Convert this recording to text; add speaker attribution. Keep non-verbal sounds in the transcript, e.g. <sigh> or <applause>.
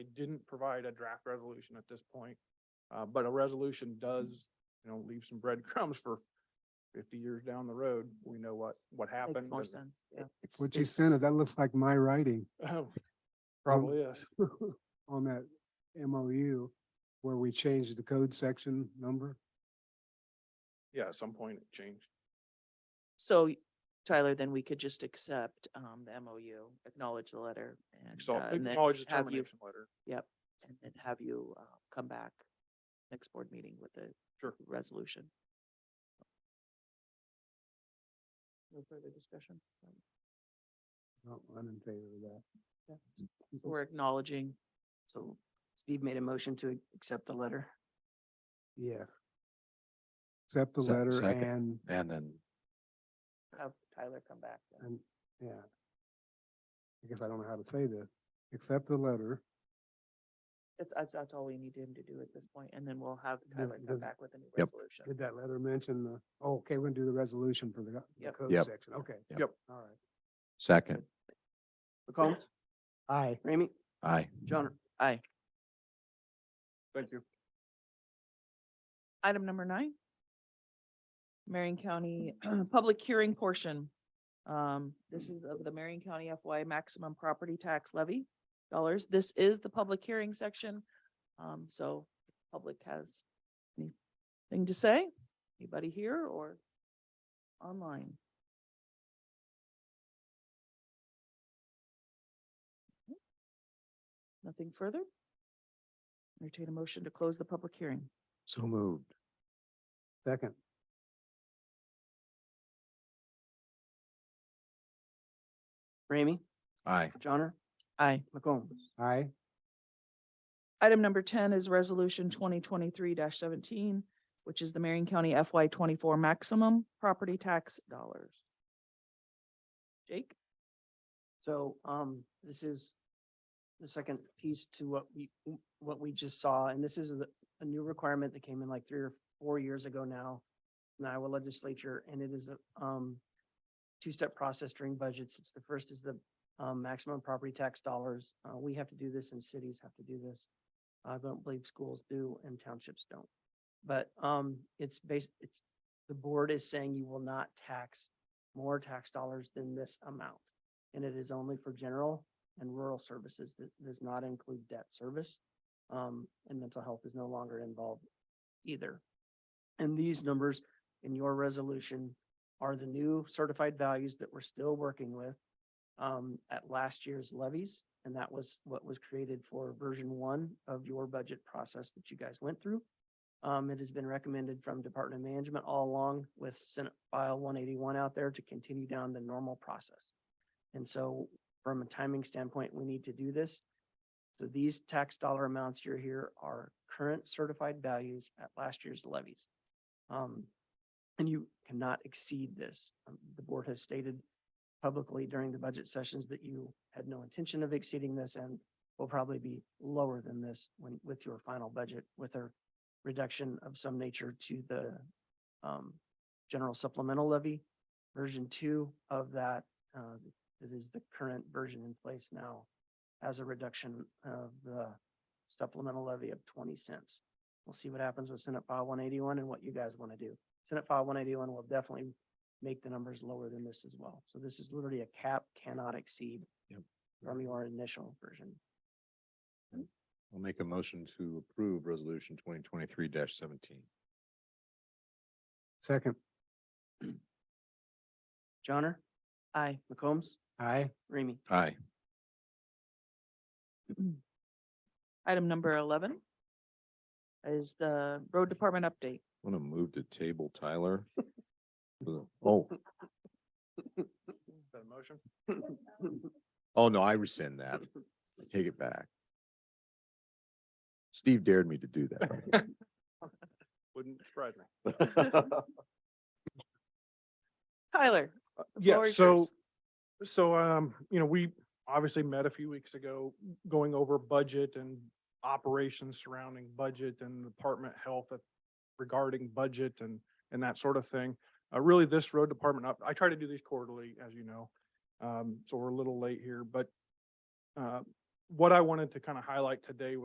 Speaker 1: They didn't provide a draft resolution at this point. Uh, but a resolution does, you know, leave some breadcrumbs for fifty years down the road. We know what, what happened.
Speaker 2: Makes more
Speaker 1: and-
Speaker 2: sense, yeah.
Speaker 1: it's-
Speaker 3: What you
Speaker 1: it's-
Speaker 3: sent us, that looks like my writing <laughs>
Speaker 1: oh, Probably is.
Speaker 3: on that MOU where we changed the code section number.
Speaker 1: Yeah, at some point it changed.
Speaker 2: So Tyler, then we could just accept um the MOU, acknowledge the letter and
Speaker 1: So
Speaker 2: uh, and then
Speaker 1: acknowledge the
Speaker 2: have you,
Speaker 1: termination letter.
Speaker 2: yep, and then have you uh come back next board meeting with the
Speaker 1: Sure.
Speaker 2: resolution. No further discussion?
Speaker 3: No, I'm in favor of that.
Speaker 2: So We're acknowledging,
Speaker 4: So Steve made a motion to accept the letter.
Speaker 3: Yeah. Accept the
Speaker 5: Se-
Speaker 3: letter
Speaker 5: second.
Speaker 3: and,
Speaker 5: And then
Speaker 2: have Tyler come back. then.
Speaker 3: and, yeah. I guess I don't know how to say this. Accept the letter.
Speaker 2: That's, that's, that's all we need him to do at this point, and then we'll have
Speaker 3: The-
Speaker 2: Tyler
Speaker 3: the-
Speaker 2: come back with a new
Speaker 5: Yep.
Speaker 2: resolution.
Speaker 3: Did that letter mention the, oh, okay, we're gonna do the resolution for the go- the
Speaker 2: Yep.
Speaker 3: code
Speaker 5: Yep.
Speaker 3: section. Okay.
Speaker 5: Yep.
Speaker 1: Yep.
Speaker 3: All right.
Speaker 5: second,
Speaker 4: McCombs,
Speaker 3: Aye.
Speaker 4: Ramey,
Speaker 5: aye.
Speaker 4: Johnner.
Speaker 2: Aye.
Speaker 1: Thank you.
Speaker 2: Item number nine. Marion County <clears throat> Public Hearing Portion. Um, this is of the Marion County FY Maximum Property Tax Levy dollars. This is the public hearing section. Um, so public has anything to say? Anybody here or online? Nothing further? Entertain a motion to close the public hearing.
Speaker 5: So moved.
Speaker 3: Second.
Speaker 4: Ramey,
Speaker 5: Aye.
Speaker 4: Johnner,
Speaker 2: Aye.
Speaker 4: McCombs.
Speaker 3: Aye.
Speaker 2: Item number ten is resolution twenty twenty-three seventeen, which is the Marion County FY twenty-four maximum property tax dollars. Jake?
Speaker 4: So um, this is the second piece to what we, what we just saw, and this is a, a new requirement that came in like three or four years ago now. In the Iowa legislature, and it is a um, two-step process during budgets. It's the first is the um, maximum property tax dollars. Uh, we have to do this and cities have to do this. I don't believe schools do and townships don't. But um, it's based, it's, the board is saying you will not tax more tax dollars than this amount and it is only for general and rural services. That does not include debt service. Um, and mental health is no longer involved either. And these numbers in your resolution are the new certified values that we're still working with um, at last year's levies, and that was what was created for version one of your budget process that you guys went through. Um, it has been recommended from Department of Management all along with Senate File one eighty-one out there to continue down the normal process. And so from a timing standpoint, we need to do this. So these tax dollar amounts you're here are current certified values at last year's levies. Um, and you cannot exceed this. Um, The board has stated publicly during the budget sessions that you had no intention of exceeding this and will probably be lower than this when, with your final budget, with a reduction of some nature to the um, general supplemental levy. Version two of that, uh, that is the current version in place now has a reduction of the supplemental levy of twenty cents. We'll see what happens with Senate File one eighty-one and what you guys want to do. Senate File one eighty-one will definitely make the numbers lower than this as well. So this is literally a cap cannot exceed
Speaker 5: Yep.
Speaker 4: from your initial version.
Speaker 5: I'll make a motion to approve resolution twenty twenty-three seventeen.
Speaker 3: Second.
Speaker 4: Johnner,
Speaker 2: Aye.
Speaker 4: McCombs,
Speaker 3: Aye.
Speaker 4: Ramey.
Speaker 5: Aye.
Speaker 2: Item number eleven is the road department update.
Speaker 5: Want to move to table Tyler? Oh,
Speaker 1: Is that a motion?
Speaker 5: oh no, I rescind that. I Take it back. Steve dared me to do that.
Speaker 1: Wouldn't surprise me.
Speaker 2: Tyler? floor
Speaker 1: Yeah,
Speaker 2: is
Speaker 1: so,
Speaker 2: yours.
Speaker 1: so, um, you know, we obviously met a few weeks ago, going over budget and operations surrounding budget and department health at- regarding budget and, and that sort of thing. Uh, really, this road department, up- I try to do these quarterly, as you know, um, so we're a little late here, but uh, what I wanted to kind of highlight today